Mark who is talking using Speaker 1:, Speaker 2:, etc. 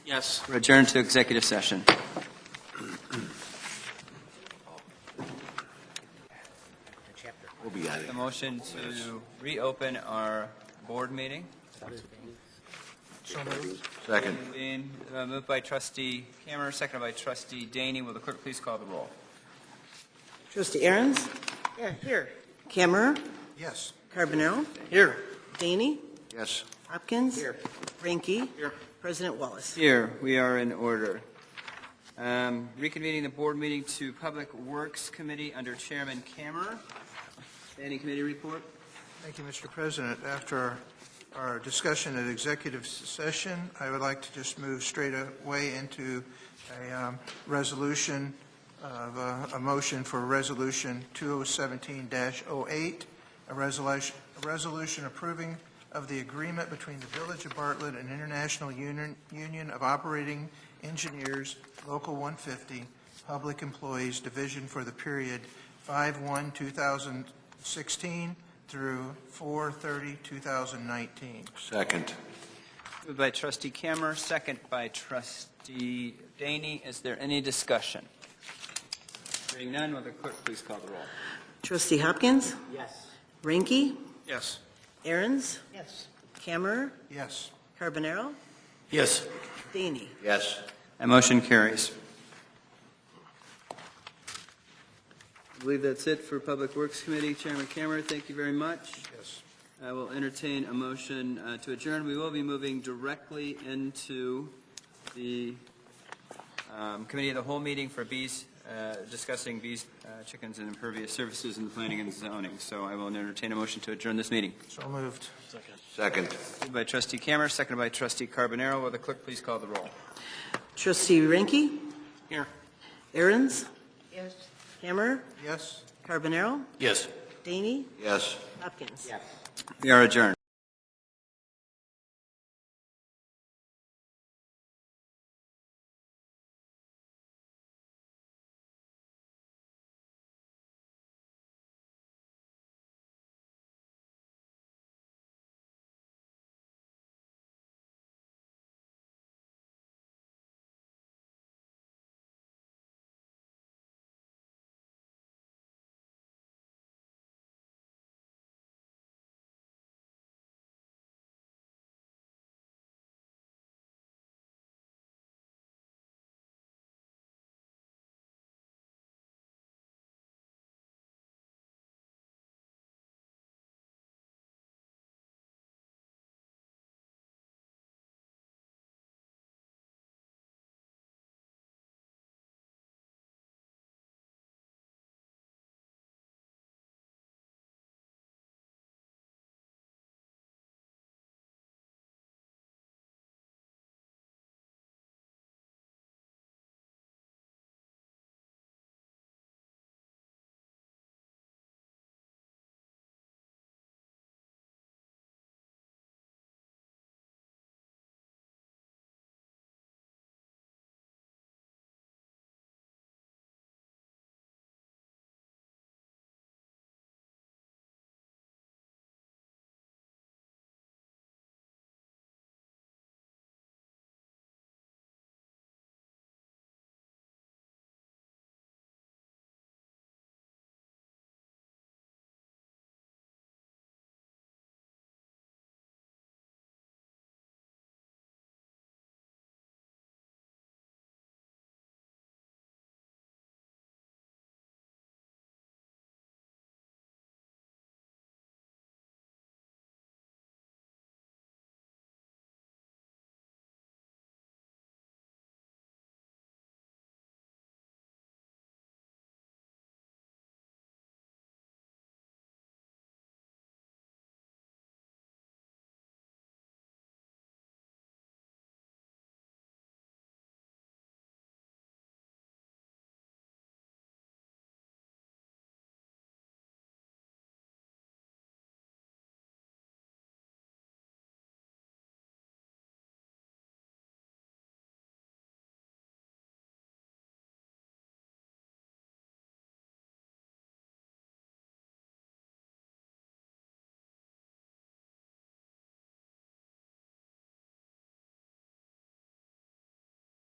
Speaker 1: Yes.
Speaker 2: We're adjourned to executive session.
Speaker 3: We'll be out of
Speaker 2: A
Speaker 3: here.
Speaker 2: motion to reopen our board meeting.
Speaker 3: Second.
Speaker 2: Being, uh, Moved by trustee Cameron, seconded by trustee Daney. Will the clerk please call the roll?
Speaker 4: Trustee Aaron's? Yeah, here. Camera?
Speaker 3: Yes.
Speaker 4: Carbonell? Here. Daney?
Speaker 3: Yes.
Speaker 4: Hopkins? Here. Ranky?
Speaker 1: Here.
Speaker 4: President Wallace?
Speaker 2: Here, we are in order. Um, Reconvening the board meeting to Public Works Committee under Chairman Cameron. Any committee report?
Speaker 5: Thank you, Mr. President. After our discussion at executive session, I would like to just move straight away into a um, resolution of, uh, a motion for Resolution 2017-08, a resolution, a resolution approving of the agreement between the Village of Bartlett and International Union, Union of Operating Engineers, Local 150, Public Employees Division for the period 5/1/2016 through 4/30/2019.
Speaker 3: Second.
Speaker 2: Moved by trustee Cameron, second by trustee Daney. Is there any discussion? Hearing none, will the clerk please call the roll?
Speaker 4: Trustee Hopkins?
Speaker 1: Yes.
Speaker 4: Ranky?
Speaker 1: Yes.
Speaker 4: Aaron's?
Speaker 1: Yes.
Speaker 4: Camera?
Speaker 5: Yes.
Speaker 4: Carbonell?
Speaker 1: Yes.
Speaker 4: Daney?
Speaker 3: Yes.
Speaker 2: That motion carries. I believe that's it for Public Works Committee. Chairman Cameron, thank you very much.
Speaker 5: Yes.
Speaker 2: I will entertain a motion uh, to adjourn. We will be moving directly into the um, Committee of the Whole meeting for bees, uh, discussing bees, uh, chickens, and impervious services in the planning and zoning. So I will entertain a motion to adjourn this meeting.
Speaker 5: So moved.
Speaker 3: Second.
Speaker 2: Moved by trustee Cameron, seconded by trustee Carbonaro. Will the clerk please call the roll?
Speaker 4: Trustee Ranky?
Speaker 1: Here.
Speaker 4: Aaron's? Yes. Camera?
Speaker 5: Yes.
Speaker 4: Carbonell?
Speaker 1: Yes.
Speaker 4: Daney?
Speaker 3: Yes.
Speaker 4: Hopkins?
Speaker 2: We are adjourned.